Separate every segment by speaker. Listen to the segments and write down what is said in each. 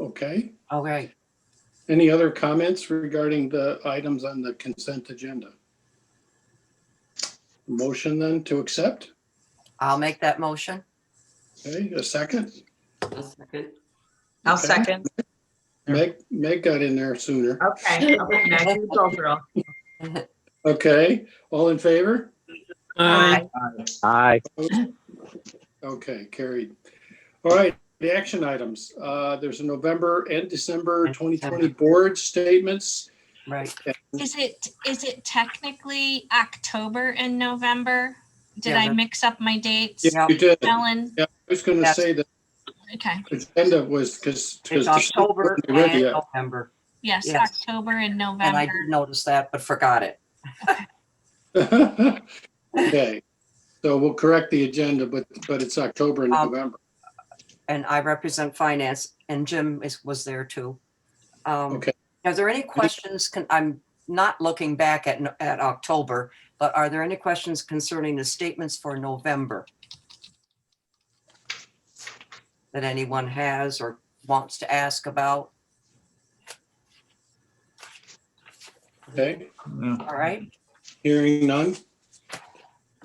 Speaker 1: Okay.
Speaker 2: All right.
Speaker 1: Any other comments regarding the items on the consent agenda? Motion then to accept?
Speaker 2: I'll make that motion.
Speaker 1: Okay, a second?
Speaker 3: A second.
Speaker 4: I'll
Speaker 1: Okay.
Speaker 4: second.
Speaker 1: Meg, Meg got in there sooner.
Speaker 2: Oh.
Speaker 4: Okay. Okay. Meg, you go, girl.
Speaker 1: Okay, all in favor?
Speaker 4: Aye.
Speaker 5: Aye.
Speaker 1: Okay, carried. All right, the action items. Uh, There's a November and December 2020 board statements.
Speaker 2: Right.
Speaker 6: Is it, is it technically October and November? Did
Speaker 2: Yeah,
Speaker 6: I
Speaker 2: that-
Speaker 6: mix up my dates?
Speaker 2: Yeah.
Speaker 1: Yeah, You did. I
Speaker 6: Ellen,
Speaker 1: was going to
Speaker 2: Yes.
Speaker 1: say the
Speaker 6: okay,
Speaker 1: agenda was because.
Speaker 2: It's October and November.
Speaker 6: yes,
Speaker 2: Yes.
Speaker 6: October and
Speaker 2: And I
Speaker 6: November.
Speaker 2: did notice that, but forgot it.
Speaker 1: Okay, so we'll correct the agenda, but, but it's October and
Speaker 2: Um,
Speaker 1: November.
Speaker 2: And I represent finance and Jim is, was there too. Um,
Speaker 1: Okay.
Speaker 2: Are there any questions? Can, I'm not looking back at, no- at October, but are there any questions concerning the statements for November? That anyone has or wants to ask about?
Speaker 1: Okay,
Speaker 2: All right.
Speaker 1: hearing none.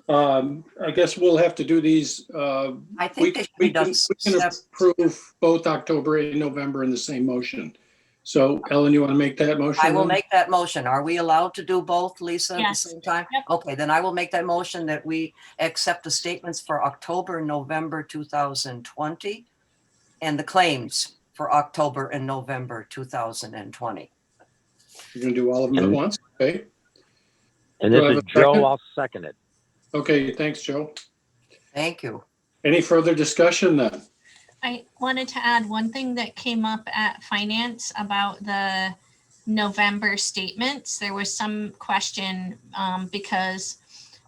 Speaker 1: Um, I guess we'll have to do these, uh,
Speaker 2: I
Speaker 1: we
Speaker 2: think they
Speaker 1: can,
Speaker 2: should be
Speaker 1: we
Speaker 2: done.
Speaker 1: can we can
Speaker 2: step-
Speaker 1: approve both October and November in the same motion. So Ellen, you want to make that motion?
Speaker 2: I will
Speaker 1: then?
Speaker 2: make that motion. Are we allowed to do both, Lisa, at the
Speaker 6: Yes.
Speaker 2: same time?
Speaker 6: Yep.
Speaker 2: Okay, then I will make that motion that we accept the statements for October, and November 2020 and the claims for October and November 2020.
Speaker 1: You're going to do all of them at
Speaker 5: And-
Speaker 1: once? Okay,
Speaker 5: And
Speaker 1: Do I
Speaker 5: this
Speaker 1: have
Speaker 5: is
Speaker 1: a second?
Speaker 5: Joe, I'll second it.
Speaker 1: okay, thanks, Joe.
Speaker 2: Thank you.
Speaker 1: Any further discussion then?
Speaker 6: I wanted to add one thing that came up at finance about the November statements. There was some question um, because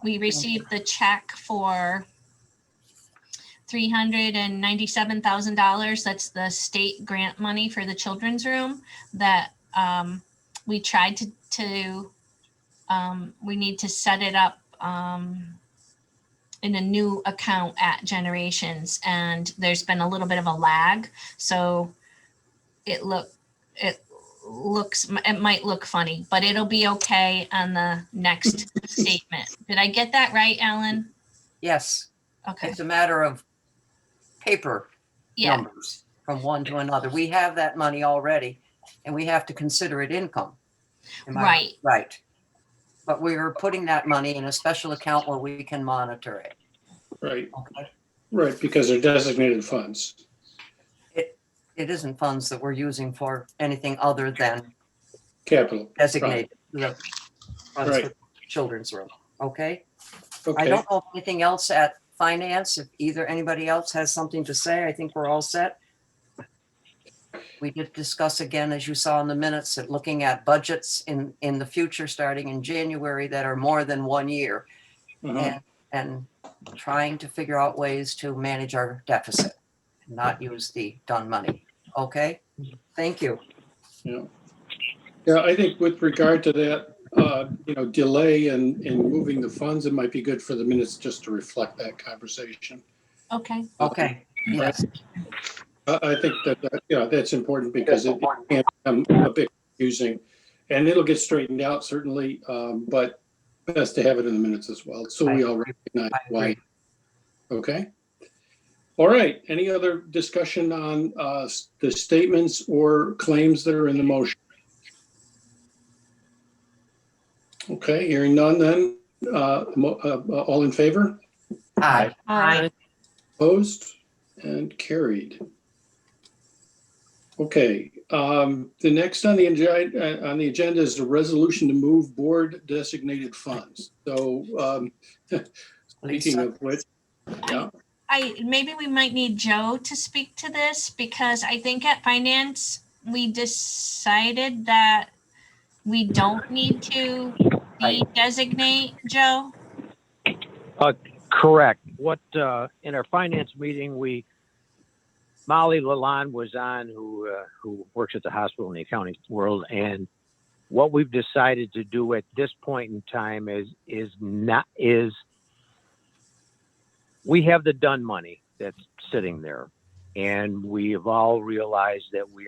Speaker 6: we received the check for three hundred and ninety-seven thousand dollars. That's the state grant money for the children's room that um, we tried to, to, um, we need to set it up um, in a new account at Generations, and there's been a little bit of a lag, so it look it looks it might look funny, but it'll be okay on the next statement. Did I get that right, Alan?
Speaker 2: Yes,
Speaker 6: Okay,
Speaker 2: it's a matter of paper
Speaker 6: yeah,
Speaker 2: numbers from one to another. We have that money already and we have to consider it income. Am I
Speaker 6: right.
Speaker 2: Right. But we are putting that money in a special account where we can monitor it.
Speaker 1: Right,
Speaker 2: Okay.
Speaker 1: right, because they're designated funds.
Speaker 2: It isn't funds that we're using for anything other than
Speaker 1: Capital.
Speaker 2: designated. the funds
Speaker 1: Right.
Speaker 2: for Children's room, okay? I
Speaker 1: Okay,
Speaker 2: don't know if anything else at finance, if either anybody else has something to say, I think we're all set. We did discuss again, as you saw in the minutes, that looking at budgets in, in the future, starting in January, that are more than one year.
Speaker 1: uh-huh,
Speaker 2: and, and trying to figure out ways to manage our deficit, not use the done money. Okay? Thank you.
Speaker 1: yeah. Yeah, I think with regard to that, uh, you know, delay in, in moving the funds, it might be good for the minutes just to reflect that conversation.
Speaker 6: Okay,
Speaker 2: Okay. Yes.
Speaker 1: I, I think that, that, yeah, that's important because it can become a bit confusing. And it'll get straightened out certainly, um, but best to have it in the minutes as well, so we all recognize
Speaker 2: I
Speaker 1: why.
Speaker 2: agree.
Speaker 1: Okay? All right, any other discussion on, uh, s- the statements or claims that are in the motion? Okay, hearing none then, uh, mo- uh, uh, all in favor?
Speaker 2: Aye.
Speaker 5: Uh,
Speaker 4: Aye.
Speaker 1: Opposed and carried. Okay, um, the next on the agenda, on the agenda is the resolution to move board designated funds. So, um, speaking
Speaker 2: Lisa,
Speaker 1: of which, yeah,
Speaker 6: I, maybe we might need Joe to speak to this because I think at finance, we decided that we don't need to designate Joe.
Speaker 5: Correct. What, uh, in our finance meeting, we, Molly Lalonde was on, who, uh, who works at the hospital in the accounting world. And what we've decided to do at this point in time is, is not, is we have the done money that's sitting there. And we have all realized that we